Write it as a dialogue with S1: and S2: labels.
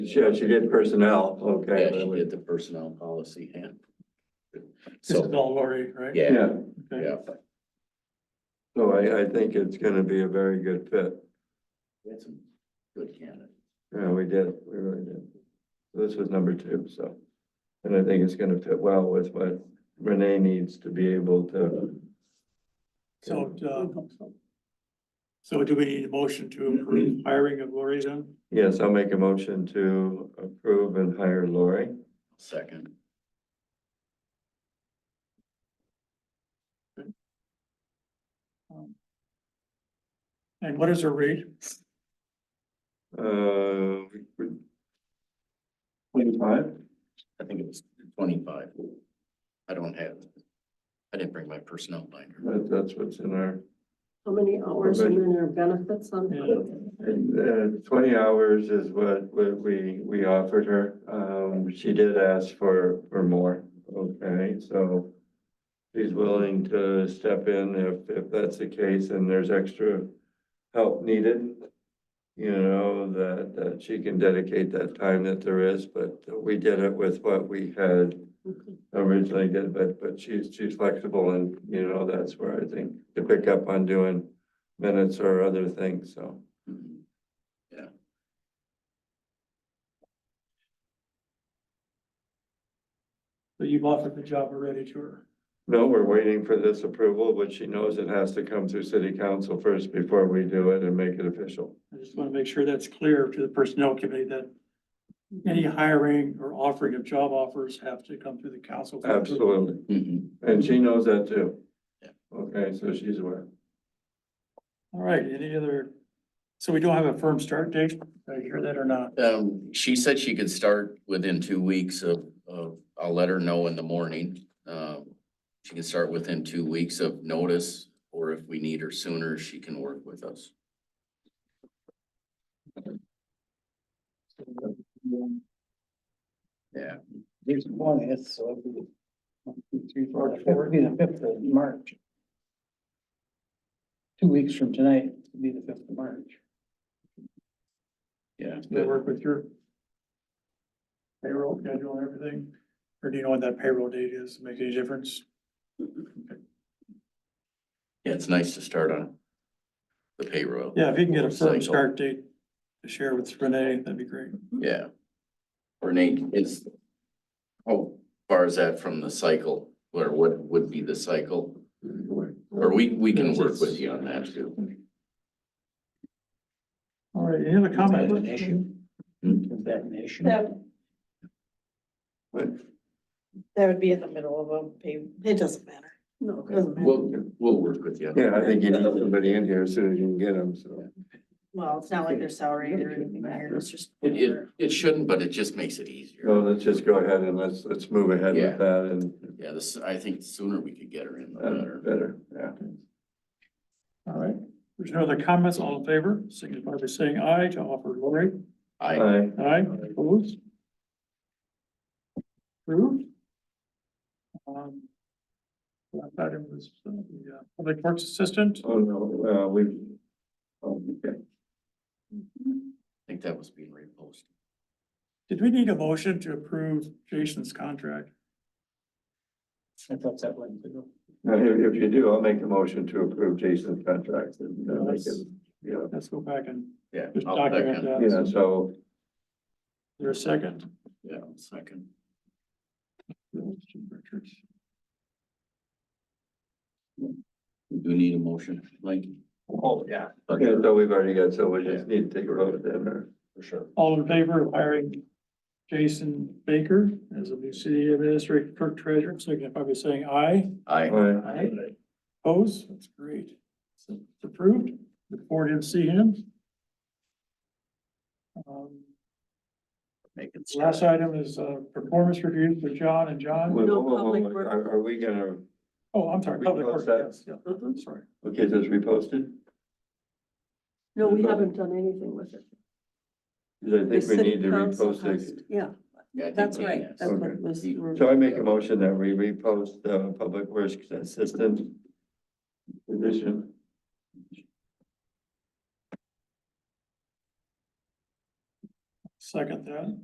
S1: She, she did personnel, okay.
S2: Yeah, she did the personnel policy and.
S3: This is
S2: So,
S3: all Lori, right?
S2: yeah,
S1: Yeah,
S3: Okay.
S2: yeah.
S1: so I, I think it's gonna be a very good fit.
S2: We had some good candidates.
S1: Yeah, we did, we really did. This was number two, so. And I think it's gonna fit well with what Renee needs to be able to.
S3: So, uh, so do we need a motion to approve
S2: Mm-hmm.
S3: hiring of Lori then?
S1: Yes, I'll make a motion to approve and hire Lori.
S2: Second,
S3: And what is her rate?
S1: Uh. Twenty-five?
S2: I think it was twenty-five. I don't have, I didn't bring my personnel binder.
S1: That, that's what's in our,
S4: How many hours and then your benefits on?
S3: Yeah.
S1: uh, twenty hours is what, what we, we offered her. Um, she did ask for, for more, okay, so. She's willing to step in if, if that's the case and there's extra help needed. You know, that, that she can dedicate that time that there is, but we did it with what we had
S4: Okay.
S1: originally did, but, but she's, she's flexible and, you know, that's where I think to pick up on doing minutes or other things, so.
S2: Mhm.
S3: So you've offered the job already to her.
S1: No, we're waiting for this approval, but she knows it has to come through city council first before we do it and make it official.
S3: I just want to make sure that's clear to the personnel committee that any hiring or offering of job offers have to come through the council.
S1: Absolutely.
S2: Mhm.
S1: And she knows that too.
S2: Yeah.
S1: Okay, so she's aware.
S3: All right, any other, so we don't have a firm start date? Did I hear that or not?
S2: Um, she said she could start within two weeks of, of, I'll let her know in the morning. Um, she can start within two weeks of notice, or if we need her sooner, she can work with us. Yeah.
S5: There's one, it's, so it'll be one, two, three, four, four, it'll be the fifth of March. Two weeks from tonight, it'll be the fifth of March.
S2: Yeah,
S3: They work with your payroll schedule and everything? Or do you know when that payroll date is? Make any difference?
S2: yeah, it's nice to start on the payroll.
S3: Yeah, if you can get a
S2: Cycle.
S3: firm start date to share with Renee, that'd be great.
S2: Yeah. Renee, is, how far is that from the cycle, or what would be the cycle? Or we, we can work with you on that too.
S3: All right, any other
S5: Is that an
S3: comments?
S5: issue?
S2: Hmm.
S5: Is that an issue?
S6: That,
S1: But
S6: that would be in the middle of a pay, it doesn't matter.
S4: No, it
S6: Doesn't
S4: doesn't matter.
S2: We'll, we'll work with you.
S1: yeah, I think you need somebody in here as soon as you can get them, so.
S6: Well, it's not like they're salary or anything there, it's just.
S2: It, it, it shouldn't, but it just makes it
S1: So
S2: easier.
S1: let's just go ahead and let's, let's move ahead
S2: Yeah.
S1: with that and
S2: Yeah, this, I think the sooner we could get her in, the
S1: uh,
S2: better.
S1: better, yeah.
S3: All right, there's no other comments, all in favor, signify by saying aye to offer Lori.
S2: I,
S1: Aye.
S3: Aye, opposed? Approved? Um, Last item was uh, the uh, public works assistant.
S1: Oh, no, uh, we, oh, okay.
S2: think that was being reposted.
S3: Did we need a motion to approve Jason's contract?
S5: I thought that went through.
S1: Now, if, if you do, I'll make a motion to approve Jason's contract. and, uh, make it- Yeah,
S3: Let's go back and
S2: Yeah.
S3: just
S2: I'll
S3: document
S2: second.
S3: that.
S1: yeah, so,
S3: There's a second.
S2: Yeah, I'll second. We Do need a motion, like? Oh, yeah.
S1: yeah, so we've already got, so we just need to take a vote then, or,
S2: for sure.
S3: All in favor of hiring Jason Baker as a new city administrator clerk treasurer, signify by saying aye.
S2: I,
S1: Aye.
S3: Opposed? That's great. So It's approved. Look forward to seeing him. Um,
S2: make it. start.
S3: Last item is uh, performance review for John and John.
S1: Wait, whoa,
S4: No
S1: whoa, whoa,
S4: public
S1: wait,
S4: work.
S1: Are, are we gonna,
S3: Oh, I'm sorry.
S1: We
S3: public
S1: close
S3: works,
S1: that.
S3: yes, yeah,
S4: Mhm.
S3: Sorry.
S1: okay, is this reposted?
S4: No, we haven't done anything with it.
S1: 'Cause I think
S4: The
S1: we
S4: city
S1: need to
S4: council
S1: repost
S4: has-
S1: it.
S4: Yeah,
S2: Yeah, I think
S4: that's
S2: we-
S4: right.
S2: yes.
S4: That's
S1: Okay.
S4: what was.
S1: So I make a motion that we repost the public works assistant position.
S3: Second that.